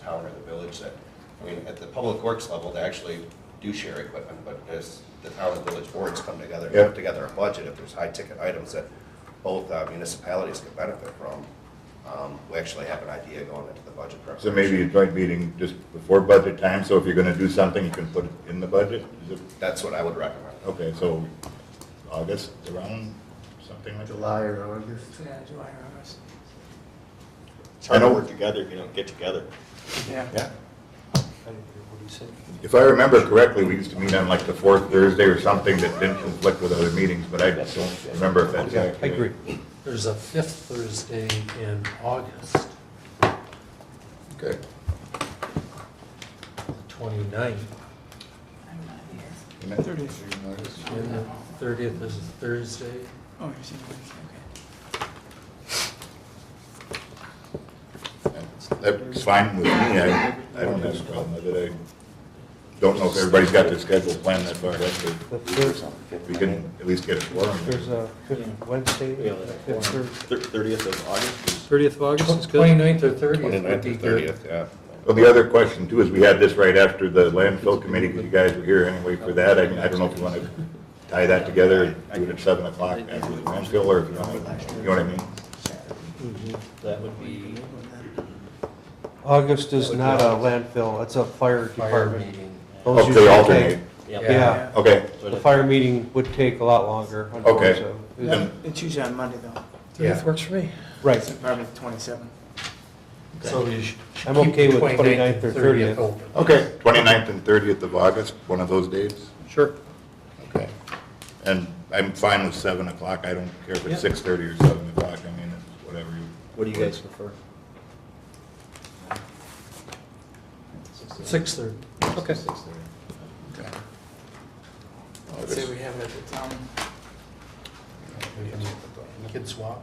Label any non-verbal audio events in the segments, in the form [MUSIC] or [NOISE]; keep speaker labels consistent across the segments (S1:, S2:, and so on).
S1: town or the village that, I mean, at the public works level, they actually do share equipment, but as the town and village boards come together, and
S2: Yeah.
S1: put together a budget, if there's high-ticket items that both uh, municipalities could benefit from, um, we actually have an idea going into the budget preparation.
S2: So maybe a joint meeting just before budget time, so if you're gonna do something, you can put it in the budget? Is it-
S1: That's what I would recommend.
S2: Okay, so August around, something like that?
S3: July or August.
S4: Yeah, July or August.
S5: It's hard to work together, you know, get together.
S4: Yeah.
S2: Yeah.
S6: I didn't hear what he said.
S2: If I remember correctly, we used to meet on like the fourth Thursday or something that didn't conflict with other meetings, but I don't remember if that's
S6: Yeah, I
S2: accurate.
S6: agree. There's a fifth Thursday in August,
S2: Okay.
S6: the 29th,
S4: I'm not here.
S6: and the 30th is a Thursday.
S4: Oh, you're saying Wednesday, okay.
S2: That's fine with me, I, I don't have a problem with it. I Don't know if everybody's got their schedule planned that far, that's good.
S7: The fifth.
S2: We can at least get a forum.
S7: There's a fifth Wednesday,
S5: Yeah, that's
S7: fifth Thursday.
S5: Thirtieth of August,
S8: 30th of August is good.
S6: 29th or 30th would
S1: 29th
S6: be
S1: or
S6: good.
S1: 30th, yeah.
S2: Well, the other question too is, we had this right after the landfill committee, because you guys were here anyway for that. I mean, I don't know if you want to tie that together, do it at seven o'clock after the landfill, or if you want, to- you know what I mean?
S5: that would be,
S7: August is not a landfill, it's a fire
S6: Fire
S7: department.
S6: meeting.
S7: Those
S2: Okay,
S7: usually
S2: Oh, alternate.
S5: yeah.
S7: Yeah.
S2: Okay,
S7: take- The fire meeting would take a lot longer, unfortunately.
S2: then,
S9: It's usually on Monday, though.
S8: 30th works for me.
S7: Right,
S9: Probably the 27th.
S6: So you should should
S7: I'm
S6: keep
S7: okay
S6: the
S7: with
S6: 29th
S7: 29th
S6: and
S7: or
S6: 30th
S7: 30th.
S6: open.
S2: okay, 29th and thirtieth of August, one of those dates?
S8: Sure.
S2: Okay. And I'm fine with seven o'clock, I don't care if it's six thirty or seven o'clock, I mean, it's whatever you.
S5: What do you guys prefer?
S6: 6:30.
S8: Okay.
S2: Okay.
S9: Let's say we have it at the town.
S6: We can- we can swap.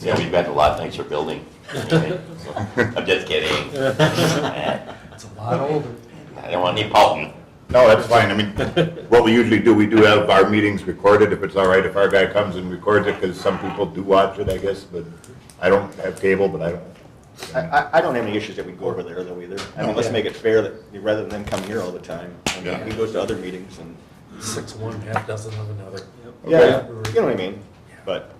S10: Yeah, we've got a lot of things for building. I'm just kidding.
S6: It's a lot older.
S10: I don't want any Paulton.
S2: No, that's fine. I mean, [LAUGHS] what we usually do, we do have our meetings recorded, if it's all right, if our guy comes and records it, because some people do watch it, I guess, but I don't have cable, but I
S5: I,
S2: don't.
S5: I, I don't have any issues that we go over there though either. I mean, let's make it fair that, rather than come here all the time, I mean,
S2: Yeah.
S5: he goes to other meetings and,
S6: Six of one, half dozen of another.
S5: yeah, you know what I mean? But,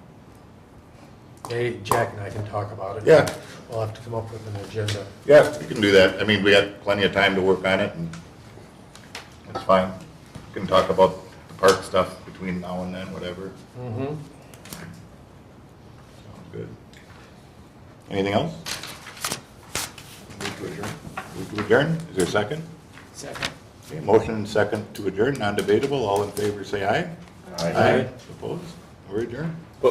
S6: Hey, Jack and I can talk about it.
S2: Yeah.
S6: We'll have to come up with an agenda.
S2: Yeah, we can do that. I mean, we have plenty of time to work on it, and it's fine. We Can talk about the park stuff between now and then, whatever.
S6: Mm-hmm.
S2: Sounds good. Anything else? Move to adjourn. Move to adjourn. Is there a second?
S9: Second.
S2: Okay, motion and second to adjourn, non-debatable. All in favor, say aye.
S1: Aye.
S2: Opposed? We're adjourned.